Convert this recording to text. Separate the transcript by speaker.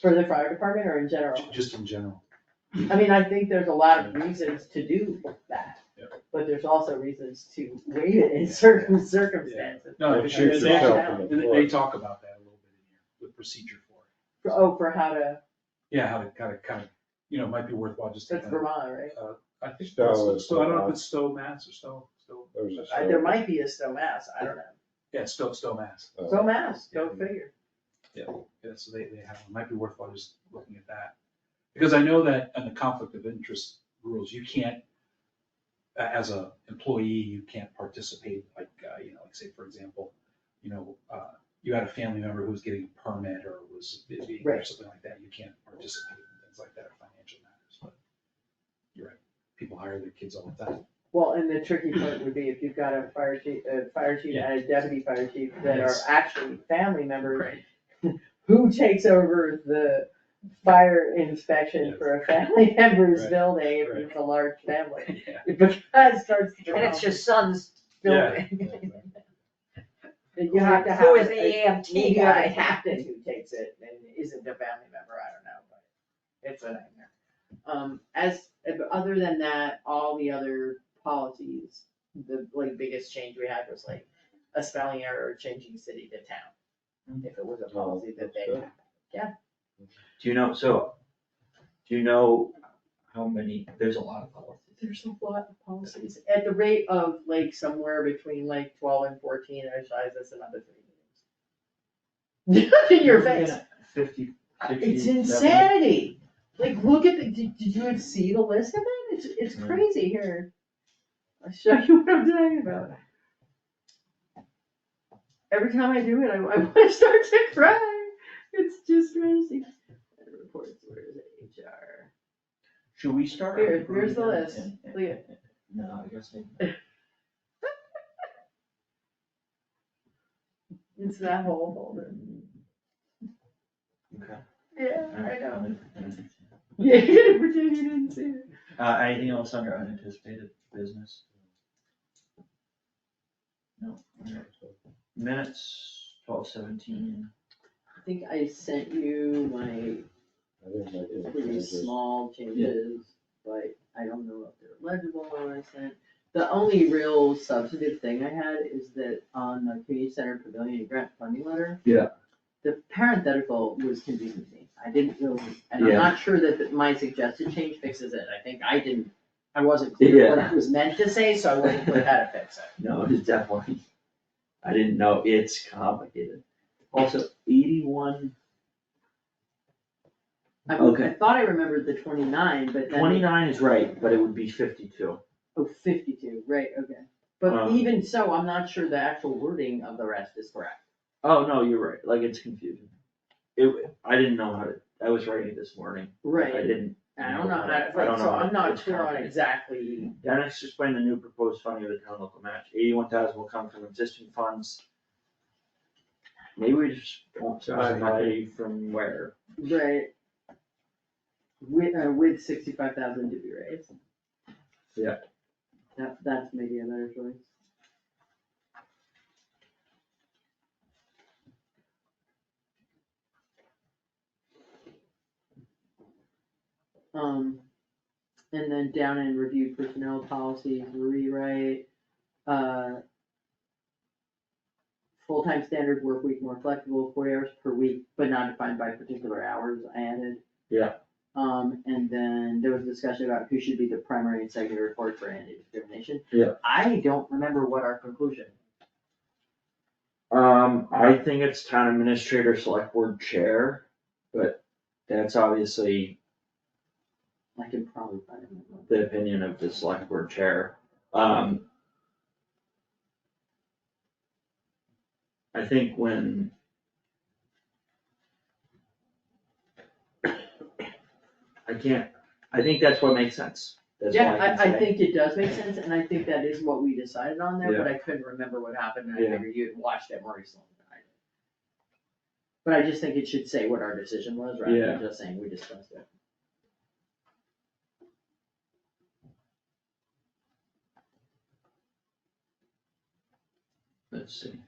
Speaker 1: For the fire department or in general?
Speaker 2: Ju- Just in general.
Speaker 1: I mean, I think there's a lot of reasons to do that.
Speaker 3: Yeah.
Speaker 1: But there's also reasons to waive it in certain circumstances.
Speaker 2: No,
Speaker 3: It
Speaker 2: and
Speaker 3: shoots
Speaker 2: they-
Speaker 1: itself
Speaker 3: in the
Speaker 2: and they-
Speaker 3: foot.
Speaker 2: they talk about that a little bit in here, the procedure for it.
Speaker 1: For- Oh, for how to,
Speaker 2: Yeah, how to kind of, kind of, you know, it might be worthwhile just to
Speaker 1: that's
Speaker 2: kind of,
Speaker 1: Vermont, right?
Speaker 2: I think,
Speaker 3: Stowe
Speaker 2: that's-
Speaker 3: is
Speaker 2: Stowe- I don't know
Speaker 3: Vermont.
Speaker 2: if it's Stowe, Mass or Stowe, Stowe,
Speaker 3: There's a
Speaker 1: I-
Speaker 3: story.
Speaker 1: There might be a Stowe Mass, I don't know.
Speaker 2: yeah, Stowe, Stowe, Mass.
Speaker 3: Uh,
Speaker 1: Stowe Mass, go figure.
Speaker 2: Yeah, so they, they have, it might be worthwhile just looking at that. Because I know that in the conflict of interest rules, you can't, a- as a employee, you can't participate, like, uh, you know, like say, for example, you know, uh, you had a family member who was getting a permit or was busy or
Speaker 1: Right.
Speaker 2: something like that, you can't participate in things like that, or financial matters, but you're right, people hire their kids all the time.
Speaker 1: Well, and the tricky part would be if you've got a fire chief, a fire chief
Speaker 2: Yeah.
Speaker 1: and a deputy fire chief that are
Speaker 2: Yes.
Speaker 1: actually family members, who takes over the fire inspection
Speaker 2: Yes.
Speaker 1: for a family member's
Speaker 2: Right.
Speaker 1: building if
Speaker 2: Right.
Speaker 1: it's a large family?
Speaker 2: Yeah.
Speaker 1: Because it starts to.
Speaker 4: And it's your son's building.
Speaker 1: You have to have.
Speaker 4: Who is the
Speaker 1: a-
Speaker 4: EMT
Speaker 1: Maybe you have a
Speaker 4: guy?
Speaker 1: captain who takes it and isn't a family member, I don't know, but it's a nightmare. Um, as, but other than that, all the other policies, the like biggest change we had was like a spelling error, changing city to town. If it was a policy that they had.
Speaker 5: Do you know, so, do you know how many, there's a lot of policies.
Speaker 1: There's a lot of policies. At the rate of like somewhere between like twelve and fourteen, I size that's another three meetings. In your face.
Speaker 5: Fifty, sixty,
Speaker 1: It's
Speaker 5: seventy?
Speaker 1: insanity. Like, look at the, did, did you see the list of it? It's, it's
Speaker 5: Mm.
Speaker 1: crazy here. I'll show you what I'm talking about. Every time I do it, I, I wanna start to cry. It's just crazy. Reports, where is it? HR.
Speaker 5: Should we start?
Speaker 1: Here, here's the
Speaker 5: approving
Speaker 1: list.
Speaker 5: them? Yeah,
Speaker 1: Look at,
Speaker 5: yeah. No, I guess maybe.
Speaker 1: it's that whole folder.
Speaker 5: Okay.
Speaker 1: Yeah,
Speaker 5: All
Speaker 1: I
Speaker 5: right,
Speaker 1: know.
Speaker 5: I'm gonna-
Speaker 1: Yeah, you're gonna pretend you didn't see it.
Speaker 5: Uh, anything else under unanticipated business? No, all right. minutes, twelve seventeen,
Speaker 1: I think I sent you my
Speaker 3: I didn't make any
Speaker 1: pretty
Speaker 3: changes.
Speaker 1: small changes, but I don't know if they're legible or I sent. The only real substantive thing I had is that on the community center pavilion grant funding letter.
Speaker 2: Yeah.
Speaker 1: The parenthetical was confusing to me, I didn't really, and I'm
Speaker 5: Yeah.
Speaker 1: not sure that the- my suggested change fixes it, I think I didn't, I wasn't clear what it was meant to say, so I wasn't clear how to fix it.
Speaker 5: no, it's definitely, I didn't know, it's complicated. Also, eighty-one,
Speaker 1: I, I
Speaker 5: Okay.
Speaker 1: thought I remembered the twenty-nine, but then.
Speaker 5: twenty-nine is right, but it would be fifty-two.
Speaker 1: Oh, fifty-two, right, okay. But
Speaker 5: Um,
Speaker 1: even so, I'm not sure the actual wording of the rest is correct.
Speaker 5: Oh, no, you're right, like, it's confusing. It, I didn't know how to, I was writing this morning. I
Speaker 1: Right,
Speaker 5: didn't,
Speaker 1: I don't know,
Speaker 5: I
Speaker 1: how-
Speaker 5: don't
Speaker 1: right, so
Speaker 5: know.
Speaker 1: I'm not
Speaker 5: It's
Speaker 1: sure on
Speaker 5: complicated.
Speaker 1: exactly,
Speaker 5: Dennis explained the new proposed funding of the town local match, eighty-one thousand will come from existing funds. Maybe we just won't specify from where,
Speaker 1: right. With, uh, with sixty-five thousand to be raised.
Speaker 5: Yeah.
Speaker 1: That, that's maybe a better choice. Um, and then down in review personnel policies, rewrite, uh. Full-time standard work week more flexible, forty hours per week, but not defined by particular hours I added.
Speaker 5: Yeah.
Speaker 1: Um, and then there was discussion about who should be the primary and secondary report for anti-discrimination.
Speaker 5: Yeah.
Speaker 1: I don't remember what our conclusion.
Speaker 5: um, I think it's town administrator, select board chair, but that's obviously
Speaker 1: I can probably find it.
Speaker 5: the opinion of the select board chair, um. I think when. I can't, I think that's what makes sense, that's what
Speaker 1: Yeah,
Speaker 5: I can
Speaker 1: I, I
Speaker 5: say.
Speaker 1: think it does make sense, and I think that is what we decided on there, but I couldn't remember what happened, and I
Speaker 5: Yeah.
Speaker 1: figured you had watched it more recently than I did. But I just think it should say what our decision was, rather
Speaker 5: Yeah.
Speaker 1: than just saying we discussed it.
Speaker 5: Let's see.